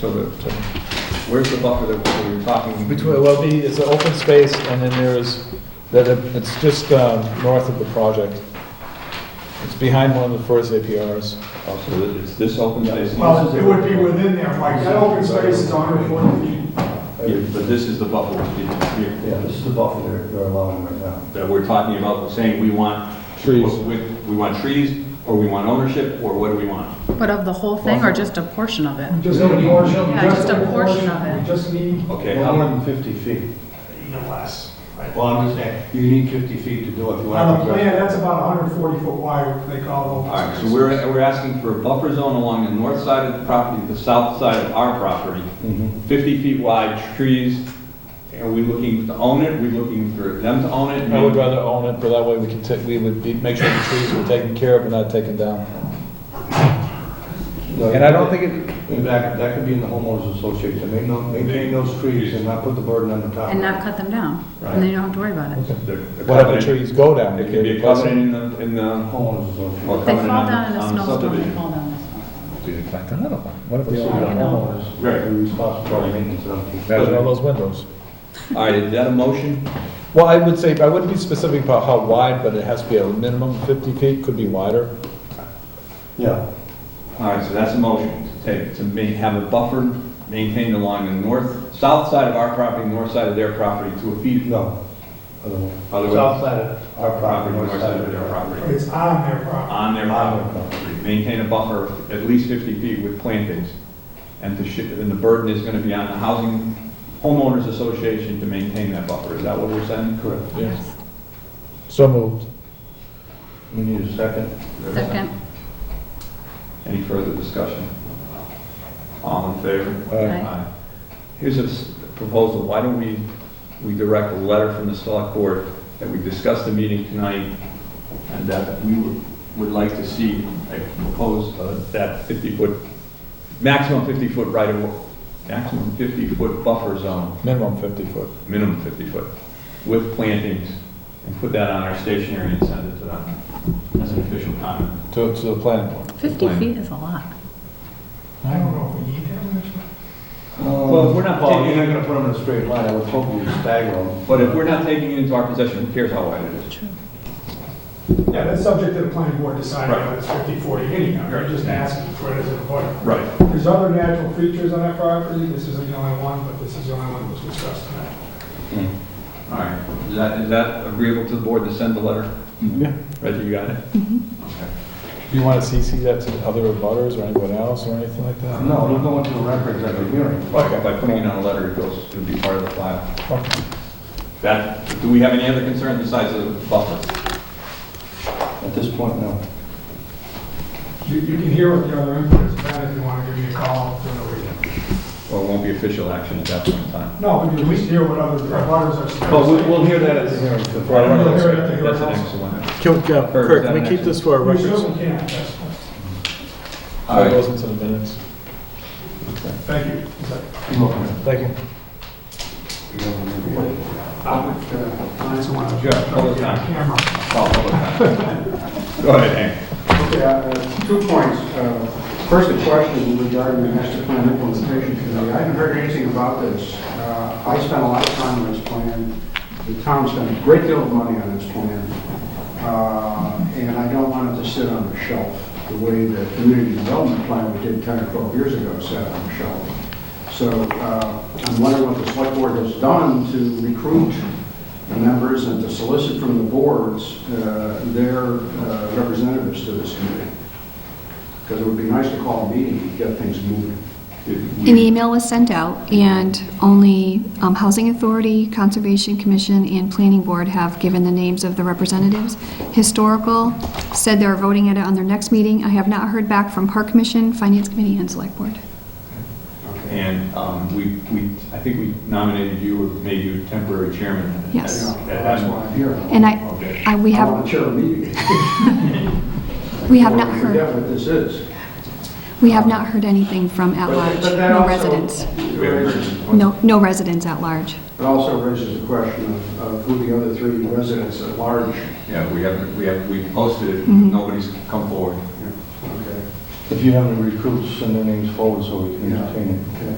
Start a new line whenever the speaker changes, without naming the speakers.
for the, to- uh, where's the buffer that that we were talking?
Between, well, the, it's an open space, and then there is, that, it's just um, north of the project. It's behind one of the first APRs.
Oh, so it- it's this open space?
Well, it would be within there, Mike, that open space is under forty feet.
Yeah, But this is the buffer we're speaking of here.
Yeah, this is the buffer they're, they're allowing right now.
that we're talking about, we're saying we want.
Trees.
We we want trees, or we want ownership, or what do we want?
But of the whole thing or just a portion of it?
Just a portion.
Yeah, just a portion of it.
We just need
Okay,
No
how
more
about,
than 50 feet.
even less.
Well, I'm just saying, you need 50 feet to do it. if you want
On the
to-
plan, that's about hundred forty foot wide, they call it
all
open
right, so
space.
we're, we're asking for a buffer zone along the north side of the property, the south side of our property,
Mm-hmm.
50 feet wide, trees, are we looking to own it, we looking for them to own it?
I would rather own it, but that way we can take, we would be, make sure the trees were taken care of and not taken down.
No,
And I don't think it,
And that, that could be in the homeowners association, They know- maintain those trees and not put the burden on the town.
And not cut them down? And then you don't have to worry about it?
The- the
what if the
covenant-
trees go down?
It could be a covenant in the, in the.
Homeowners association.
Or
They
covenant
fall
on the-
down in a
on the
snowstorm, they
subdivision.
fall down in a snowstorm.
In fact, another one. What if
Let's see, the
they,
homeowners,
Right.
they're responsible for maintenance and upkeep.
there's all those windows?
All right, is that a motion?
Well, I would say, I wouldn't be specific about how wide, but it has to be a minimum fifty feet, could be wider.
Yeah,
All right, so that's a motion to take, to ma, have a buffer maintained along the north, south side of our property, north side of their property to a feet.
no. Other way.
Other way.
South side of our property, north side of their property.
property.
It's on their property.
On their
On
property.
their property.
Maintain a buffer of at least 50 feet with plantings. And the, shi- and the burden is going to be on the Housing Homeowners Association to maintain that buffer. Is that what we're saying?
Correct.
Yes. So moved.
We need a second.
Second,
Any further discussion? All in favor?
Aye.
Uh, Here's a s- proposal, why don't we, we direct a letter from the select board that we discuss the meeting tonight, and that we would- would like to see a proposed, uh, that 50-foot, maximum 50-foot right of, maximum 50-foot buffer zone,
Minimum fifty foot.
minimum 50-foot, with plantings, and put that on our stationery and send it to them as an official comment.
To, to the planning board.
50 feet is a lot.
I don't know if we need that much.
Well, if we're not
Well, Um, You're
taking-
not gonna put them in a straight line, I would hope you stagger them.
But if we're not taking it into our possession, who cares how wide it is?
Yeah, that's subject to the planning board deciding
Right.
whether it's 50, 40 anyhow,
Right.
you're just asking for it as a point.
Right.
There's other natural features on that property, this isn't the only one, but this is the only one that was discussed tonight.
All right, is that, is that agreeable to the board to send the letter?
Yeah.
Reggie, you got it?
Mm-hmm.
Do you want to CC that to the other abutters or anyone else or anything like that?
No, they'll go into the records at the hearing.
Okay, by putting it on a letter, it goes, it'll be part of the file.
Okay.
That, do we have any other concerns besides the buffer?
At this point, no.
You, you can hear what the other input is, Ben, if you want to give me a call during the weekend.
Well, it won't be official action at that point in time.
No, we can at least hear what other butters are saying.
But we'll, we'll hear that at the hearing. the
Right,
Friday.
We'll hear it at the
That's an
hearing.
excellent.
Can,
Kurt,
can- Kirk,
is that
can we
an
keep
action?
this for our
We
records?
certainly can, that's,
All
It
right,
goes into the minutes.
thank you. Is that-
Thank you.
I just want to.
Sure, hold it down.
Camera.
call public comment. Go ahead, Hank.
Okay, uh, two points. Uh, First, a question regarding the master plan implementation committee. I haven't heard anything about this. Uh, I spent a lot of time on this plan. The town spent a great deal of money on this plan. Uh, And I don't want it to sit on the shelf the way the community development plan we did 10 or 12 years ago sat on the shelf. So uh, I'm wondering what the select board has done to recruit the members and to solicit from the boards uh, their uh, representatives to this committee. Because it would be nice to call a meeting and get things moving.
An email was sent out, and only um, Housing Authority, Conservation Commission, and Planning Board have given the names of the representatives. Historical said they're voting at it on their next meeting. I have not heard back from Park Commission, Finance Committee, and Select Board.
And um, we, we, I think we nominated you, or made you temporary chairman.
Yes.
Yeah, That's why I'm here.
And I,
Okay.
I- we
I want to chair
have,
a meeting.
we have not
Forget
heard,
what this is.
we have not heard anything from at
But-
large,
but that
no
also
residents.
raises-
No, no residents at large.
It also raises the question of- of who the other three residents at large.
Yeah, we have, we have, we posted it, nobody's come forward.
Okay.
If you have any recruits, send their names forward so we can
Yeah.
entertain it.
Okay.